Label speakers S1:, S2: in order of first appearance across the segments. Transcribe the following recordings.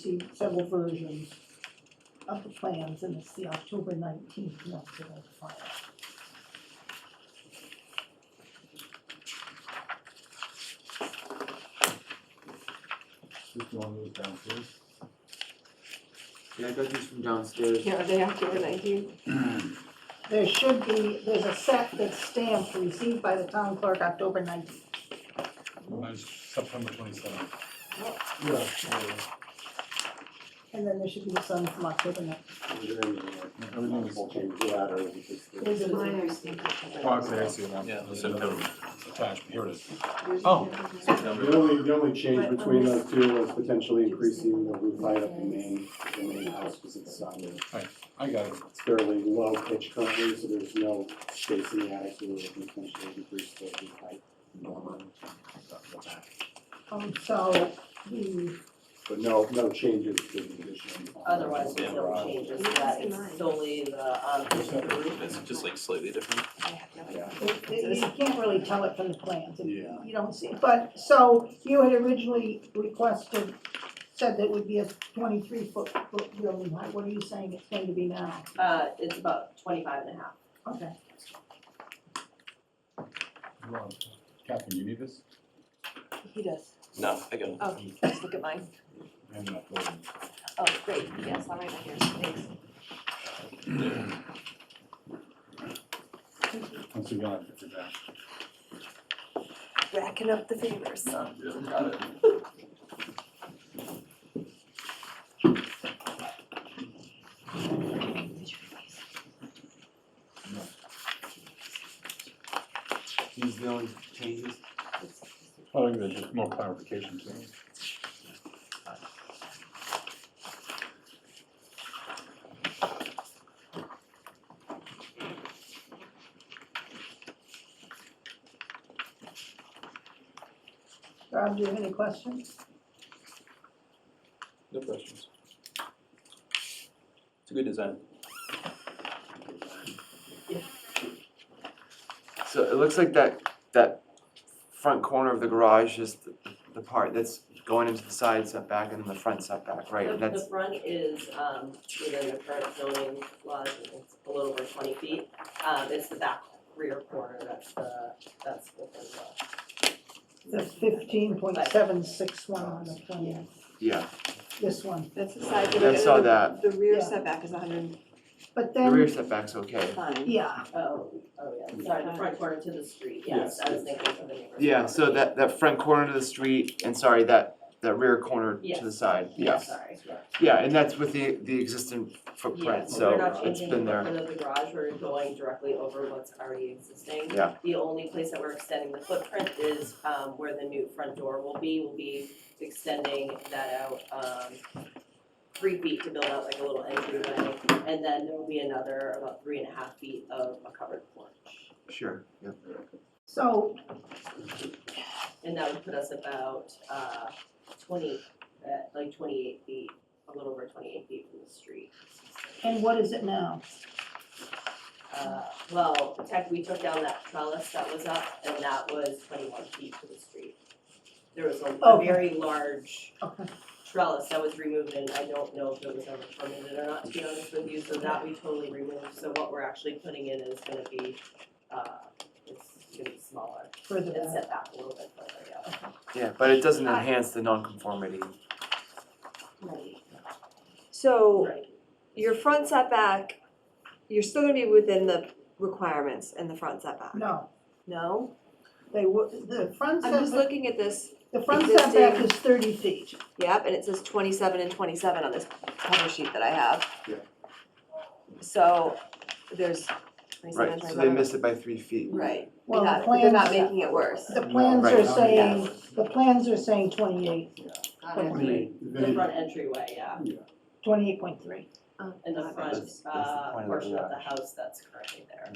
S1: see several versions of the plans, and it's the October nineteenth note that I filed.
S2: Just one move downstairs.
S3: Yeah, I got these from downstairs.
S4: Yeah, are they October nineteenth?
S1: There should be, there's a set that's stamped, received by the town clerk October nineteenth.
S5: Mine's September twenty-seventh.
S2: Yeah.
S1: And then there should be the sun from October nineteenth.
S2: Everything is changed.
S1: There's a-
S4: Mine are stamped October.
S5: Oh, okay, I see it now.
S6: Yeah,
S5: There's
S6: September.
S5: another Attached, here it is.
S6: Oh.
S7: The only, the only change between those two was potentially increasing the roof height of the main, the main house, because it's, um,
S5: I got it.
S7: it's fairly low pitch currently, so there's no space in the attic, so we would potentially increase the roof height. normally.
S1: Um, so, the,
S7: But no, no changes to the addition.
S8: Otherwise, there's no changes to that, it's solely the, um, pitch of the roof.
S6: It's just like slightly different.
S4: I have no idea.
S1: it- it- you can't really tell it from the plans, and
S7: Yeah.
S1: you don't see, but, so, you had originally requested, said that it would be a twenty-three foot, foot building height, what are you saying it's going to be now?
S8: Uh, it's about twenty-five and a half.
S1: Okay,
S5: Catherine, you need this?
S4: He does.
S6: No, I got it.
S4: Oh, let's look at mine.
S5: I ended up voting.
S4: Oh, great, yes, all right, I hear, thanks.
S5: I'm so glad that you're back.
S4: Racking up the favors.
S3: These are the only changes.
S5: Oh, I think there's just more clarification too.
S1: Rob, do you have any questions?
S6: No questions. It's a good design.
S3: So it looks like that, that front corner of the garage is the, the part that's going into the side setback and then the front setback, right?
S8: The,
S3: And
S8: the
S3: that's,
S8: front is, um, within the current zoning laws, and it's a little over twenty feet. Um, it's the back rear corner, that's the, that's within the,
S1: That's fifteen point seven six one on the plan,
S3: yeah,
S1: this one,
S4: That's the side,
S3: I saw
S4: the-
S3: that.
S4: the rear
S1: Yeah.
S4: setback is hundred and
S1: but
S3: the rear
S1: then,
S3: setback's okay.
S4: fine.
S1: yeah,
S8: oh, oh, yeah, sorry, the front corner to the street, yes, I was thinking of the neighborhood.
S3: Yeah, so that, that front corner to the street and sorry, that, that rear corner to the
S8: Yes.
S3: side,
S8: Yeah,
S3: yes.
S8: sorry, yeah.
S3: Yeah, and that's with the, the existing
S8: Yeah,
S3: footprint,
S8: we're
S3: so uh,
S8: not
S3: it's
S8: changing the
S3: been there.
S8: footprint of the garage, we're going directly over what's already existing.
S3: Yeah.
S8: The only place that we're extending the footprint is um where the new front door will be, we'll be extending that out um three feet to build out like a little entryway, and then there will be another about three and a half feet of a covered porch.
S3: Sure, yeah.
S1: so,
S8: And that would put us about uh twenty, uh like twenty-eight feet, a little over twenty-eight feet from the street.
S1: and what is it now?
S8: Uh, well, tech, we took down that trellis that was up, and that was twenty-one feet to the street. There was a- a
S1: Okay.
S8: very large
S1: Okay.
S8: trellis that was removed, and I don't know if it was ever permitted or not, to be honest with you, so that we totally removed. So what we're actually putting in is gonna be, uh, it's gonna be smaller,
S1: Further
S8: and
S1: back,
S8: set back a little bit further, yeah.
S3: Yeah, but it doesn't enhance the nonconformity.
S8: Right.
S1: Oh,
S4: So
S8: Right,
S4: your front setback, you're still gonna be within the requirements in the front setback,
S1: no,
S4: no?
S1: they would, the front
S4: I'm just
S1: setback,
S4: looking at this,
S1: the front
S4: existing-
S1: setback is thirty feet,
S4: yep, and it says twenty-seven and twenty-seven on this cover sheet that I have.
S7: Yeah.
S4: So there's twenty-seven,
S3: Right, so they
S4: twenty-seven.
S3: missed it by three feet.
S4: Right,
S1: Well,
S4: they're
S1: the
S4: not, they're not
S1: plans-
S4: making it worse.
S1: the plans are
S3: Right.
S1: saying, the plans are saying twenty-eight,
S4: Got it.
S8: the front entryway, yeah,
S1: twenty-eight point three.
S4: Oh,
S8: and the
S4: got it.
S8: front,
S3: That's- that's the
S8: uh,
S3: point of the
S8: portion of the
S3: garage.
S8: house that's currently there.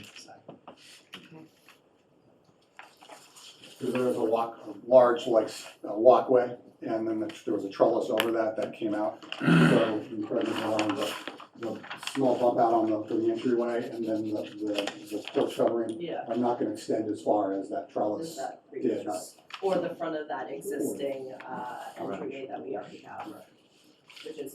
S7: Because there was a walk, a large like s- a walkway, and then the- there was a trellis over that that came out. So in front of the lawn, the, the small bump out on the, the entryway, and then the, the, the porch covering.
S8: Yeah,
S7: I'm not gonna extend as far as that
S8: is
S7: trellis.
S8: that
S7: Yeah,
S8: previous
S7: that's-
S8: or the front of that existing uh entryway that we already have.
S7: Right.
S8: which is